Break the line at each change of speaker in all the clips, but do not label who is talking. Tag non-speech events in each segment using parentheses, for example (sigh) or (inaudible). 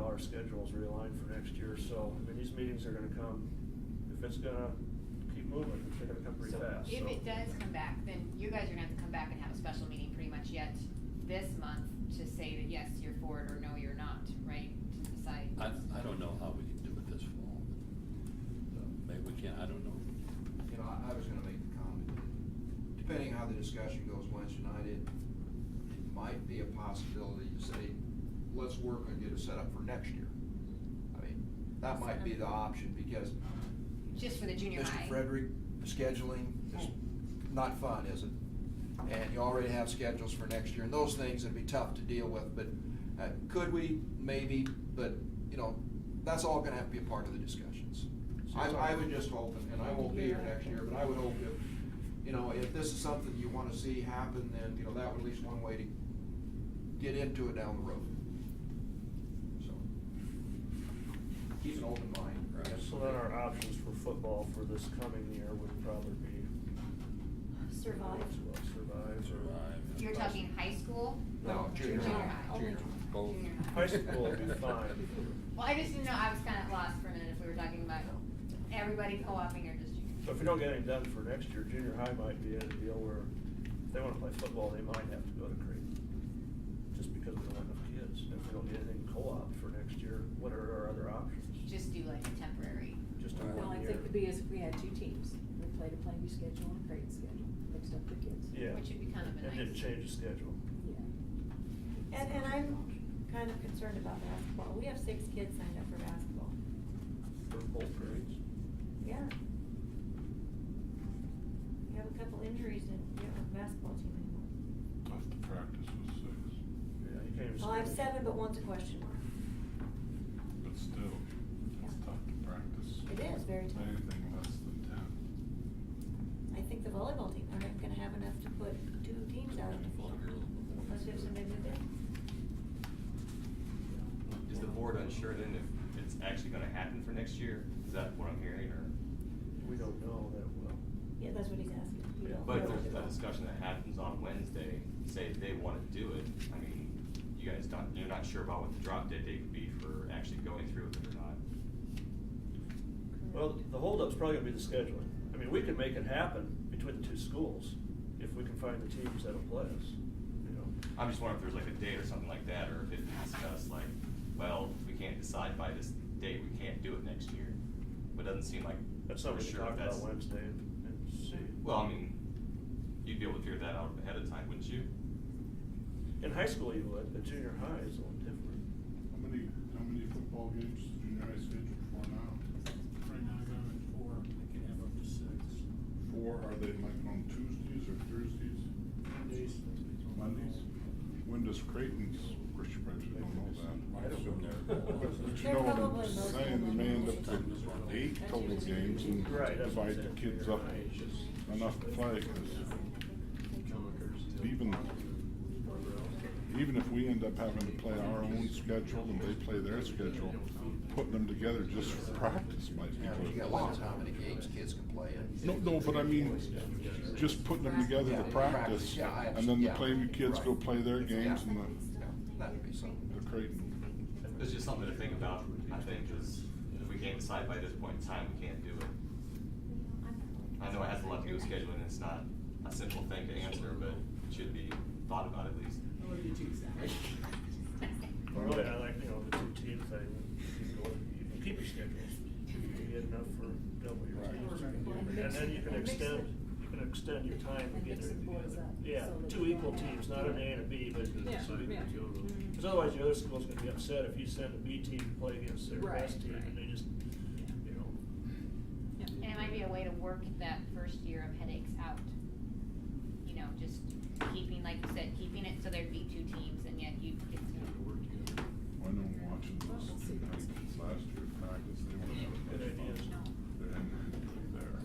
our schedules realigned for next year, so, I mean, these meetings are gonna come, if it's gonna keep moving, they're gonna come pretty
So-
fast, so.
If it does come back, then you guys are gonna have to come back and have a special meeting pretty much yet this month to say that yes, you're for it or no, you're not, right? To decide.
I, I don't know how we can do it this fall, but uh, maybe we can, I don't know.
You know, I, I was gonna make the comment that depending how the discussion goes Wednesday night, it, it might be a possibility to say, let's work and get it set up for next year. I mean, that might be the option because
Just for the junior high.
Mr. Frederick, scheduling is not fun, is it? And you already have schedules for next year, and those things would be tough to deal with, but uh, could we? Maybe, but, you know, that's all gonna have to be a part of the discussions. I, I would just hope, and I won't be here next year, but I would hope if, you know, if this is something you wanna see happen, then, you know, that would at least one way to get into it down the road. So, Keep an open mind, I guess.
So then our options for football for this coming year would probably be.
Survive.
Well, Survive.
Survive.
You're talking high school?
No, junior high, junior high.
Both.
Junior high.
High school will be fine.
Well, I just didn't know, I was kinda lost for a minute if we were talking about everybody co-oping or just junior.
So if we don't get anything done for next year, junior high might be in a deal where if they wanna play football, they might have to go to Creighton. Just because we don't have enough kids, if we don't get anything co-op for next year, what are our other options?
Just do like a temporary.
Just a
Well,
one
I
year.
think it'd be as if we had two teams, we played a Plainview schedule and a Creighton schedule, mixed up the kids.
Yeah.
Which would be kind of a
And didn't
nice-
change the schedule.
Yeah.
And, and I'm kind of concerned about basketball. We have six kids signed up for basketball.
For both grades.
Yeah. We have a couple injuries and we don't have a basketball team anymore.
Last practice was six,
Yeah, you can't even.
Well, I have
schedule.
seven, but one's a question mark.
but still, it's
Yeah.
tough to practice.
It is very tough.
Anything less than ten.
I think the volleyball team, aren't gonna have enough to put two teams out on the floor. Unless we have somebody move in.
Is the board unsure then if it's actually gonna happen for next year? Is that what I'm hearing or?
We don't know that well.
Yeah, that's what he's asking. We don't
But if
know.
there's a discussion that happens on Wednesday, say they wanna do it, I mean, you guys don't, you're not sure about what the drop dead date would be for actually going through with it or not.
Well, the holdup's probably gonna be the scheduling. I mean, we can make it happen between the two schools if we can find the teams that'll play us, you know.
I'm just wondering if there's like a date or something like that, or if it's discussed like, well, if we can't decide by this date, we can't do it next year. But it doesn't seem like.
That's something
we're
we can
sure if
talk about
that's-
Wednesday and and see.
Well, I mean, you'd be able to figure that out ahead of time, wouldn't you?
In high school you would, but junior high is a little different.
How many, how many football games is junior high scheduled for now?
Right now, I got it at four, I can have up to six.
Four, are they like on Tuesdays or Thursdays?
Mondays.
Mondays? When does Creighton's, which I actually don't know that.
I assume they're-
(laughs)
But- But you
They're
know what
probably
I'm
mostly
saying, they may end up
Mondays.
to eight total games and
Right, that's what I'm
divide the
saying.
kids
Junior
up
high is just-
enough to play, 'cause even, even if we end up having to play our own schedule and they play their schedule, putting them together just for practice might be
Yeah, but you got
good.
limits on how many games kids can play in.
No, no, but I mean, just putting them together to
Yeah,
practice,
yeah, I
and then the
understand.
Plainview kids go
Right.
play their games and
Yeah, That'd be
the,
something.
the Creighton.
It's just something to think about, I think, is if we can't decide by this point in time, we can't do it. I know it has a lot to do with scheduling, and it's not a simple thing to answer, but it should be thought about at least.
Really, I like, you know, the two teams, I, you go, you can keep your schedules, you get enough for double your teams. And then you can extend, you can extend your time to get
Mix the
everything
boys
together.
up,
Yeah,
so that
two
you don't
equal
have-
teams, not an A and a B, but.
Yeah,
so you can
yeah. Mm-hmm.
go to- Cause otherwise the other school's gonna be upset if you send a B team to play against their
Right,
best team and
right.
they just, you know.
And it might be a way to work that first year of headaches out. You know, just keeping, like you said, keeping it so there'd be two teams and yet you'd get to.
I know watching those two kids last year practice, they were
Good ideas.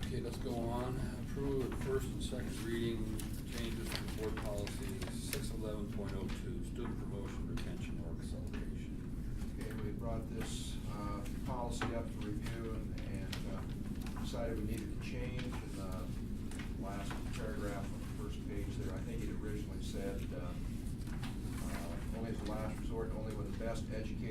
Okay, let's go on. Approve of first and second reading changes to board policy six eleven point oh two, student promotion, retention, or acceleration.
Okay, we brought this, uh, policy up for review and, and, uh, decided we needed to change in the last paragraph on the first page there. I think it originally said, uh, uh, only as a last resort, only when the best educated